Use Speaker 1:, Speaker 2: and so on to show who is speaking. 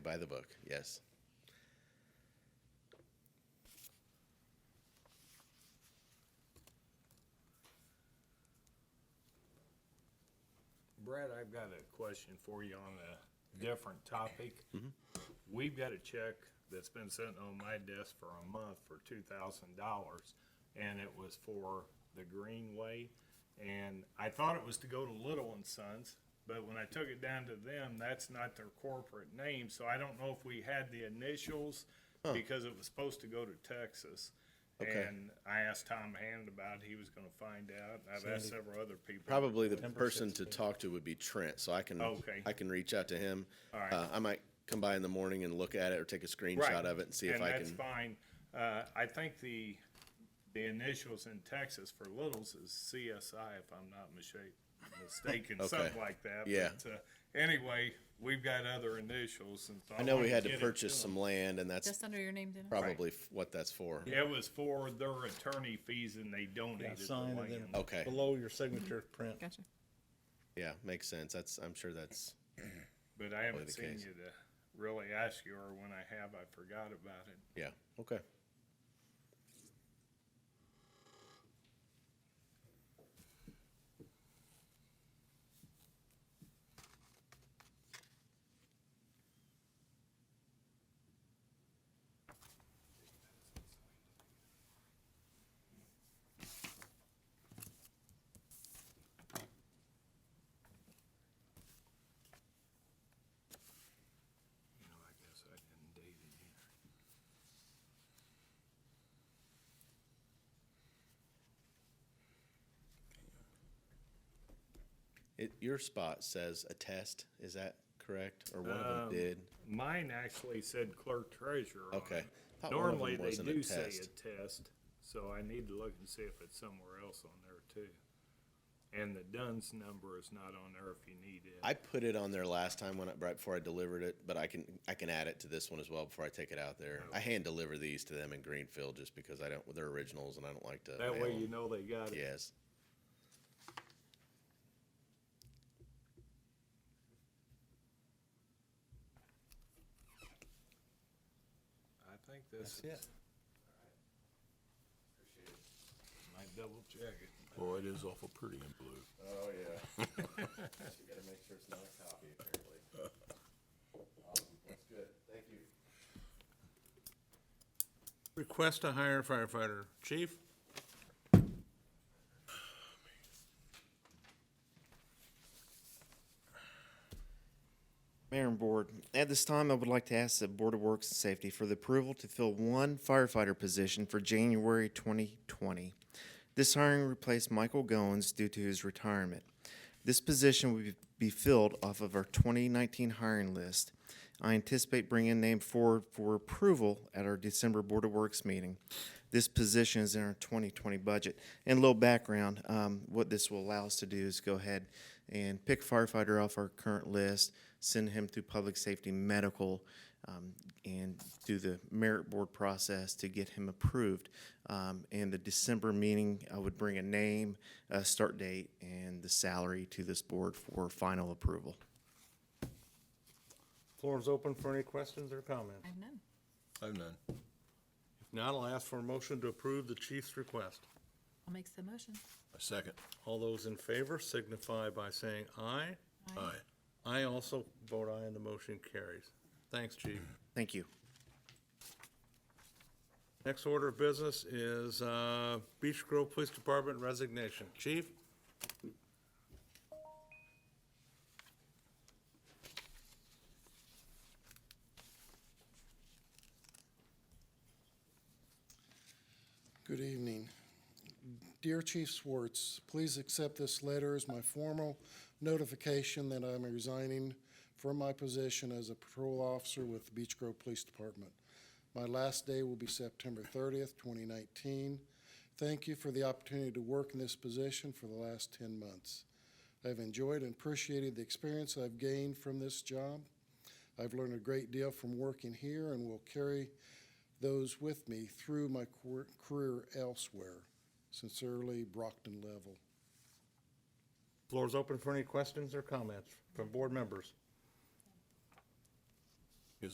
Speaker 1: By the book, yes.
Speaker 2: Brad, I've got a question for you on a different topic.
Speaker 1: Mm-hmm.
Speaker 2: We've got a check that's been sitting on my desk for a month for two thousand dollars, and it was for the Greenway. And I thought it was to go to Little and Sons, but when I took it down to them, that's not their corporate name, so I don't know if we had the initials because it was supposed to go to Texas.
Speaker 1: Okay.
Speaker 2: And I asked Tom Hand about it, he was gonna find out, I've asked several other people.
Speaker 1: Probably the person to talk to would be Trent, so I can,
Speaker 2: Okay.
Speaker 1: I can reach out to him.
Speaker 2: All right.
Speaker 1: Uh, I might come by in the morning and look at it or take a
Speaker 2: Right.
Speaker 1: screenshot of it and see if I
Speaker 2: that's
Speaker 1: can.
Speaker 2: fine. Uh, I think the, the initials in Texas for littles is CSI, if I'm not misha- mistaken, something like that.
Speaker 1: Yeah.
Speaker 2: But, uh, anyway, we've got other initials and so.
Speaker 1: I know we
Speaker 2: wanna
Speaker 1: had
Speaker 2: get
Speaker 1: to
Speaker 2: it
Speaker 1: purchase some
Speaker 2: them.
Speaker 1: land and that's
Speaker 3: Just under your name, Dennis?
Speaker 1: probably f- what that's for.
Speaker 2: It was for their attorney fees and they
Speaker 4: Yeah,
Speaker 2: donated the
Speaker 4: sign and then
Speaker 2: land.
Speaker 1: Okay.
Speaker 4: below your signature print.
Speaker 3: Gotcha.
Speaker 1: Yeah, makes sense. That's, I'm sure that's,
Speaker 2: But I haven't
Speaker 1: the
Speaker 2: seen
Speaker 1: case.
Speaker 2: you to really ask you, or when I have, I forgot about it.
Speaker 1: yeah, okay.
Speaker 2: You know, I guess I didn't date it either.
Speaker 1: It, your spot says attest, is that correct? Or one of them
Speaker 2: Um,
Speaker 1: did?
Speaker 2: Mine actually said clerk treasurer on
Speaker 1: Okay.
Speaker 2: it.
Speaker 1: Thought one of them
Speaker 2: Normally, they
Speaker 1: was an
Speaker 2: do say
Speaker 1: attest.
Speaker 2: a test, so I need to look and see if it's somewhere else on there too. And the Dunn's number is not on there if you need it.
Speaker 1: I put it on there last time when I, right before I delivered it, but I can, I can add it to this one as well before I take it out there. I hand deliver these to them in Greenfield just because I don't, they're originals and I don't like to.
Speaker 2: That
Speaker 1: mail
Speaker 2: way you
Speaker 1: them.
Speaker 2: know they got it.
Speaker 1: Yes.
Speaker 2: I think this is.
Speaker 4: That's it.
Speaker 2: Might double check it.
Speaker 5: Boy, it is awful pretty in blue.
Speaker 1: Oh, yeah. You gotta make sure it's not a copy, apparently. Awesome, that's good, thank you.
Speaker 4: Request to hire firefighter. Chief?
Speaker 6: Mayor and Board, at this time, I would like to ask the Board of Works and Safety for the approval to fill one firefighter position for January 2020. This hiring replaced Michael Goins due to his retirement. This position will be- be filled off of our 2019 hiring list. I anticipate bringing a name forward for approval at our December Board of Works meeting. This position is in our 2020 budget. And a little background, um, what this will allow us to do is go ahead and pick firefighter off our current list, send him through public safety medical, um, and do the merit board process to get him approved. Um, in the December meeting, I would bring a name, a start date, and the salary to this board for final approval.
Speaker 4: Floor is open for any questions or comments.
Speaker 3: I have none.
Speaker 5: I've none.
Speaker 4: If not, I'll ask for a motion to approve the chief's request.
Speaker 3: I'll make the motion.
Speaker 5: A second.
Speaker 4: All those in favor signify by saying aye.
Speaker 5: Aye.
Speaker 4: I also vote aye and the motion carries. Thanks, chief.
Speaker 6: Thank you.
Speaker 4: Next order of business is uh, Beech Grove Police Department resignation. Chief?
Speaker 7: Good evening. Dear Chief Swartz, please accept this letter as my formal notification that I'm resigning from my position as a patrol officer with the Beech Grove Police Department. My last day will be September thirtieth, twenty nineteen. Thank you for the opportunity to work in this position for the last ten months. I've enjoyed and appreciated the experience I've gained from this job. I've learned a great deal from working here and will carry those with me through my cour- career elsewhere. Sincerely, Brockton Level.
Speaker 4: Floor is open for any questions or comments from board members.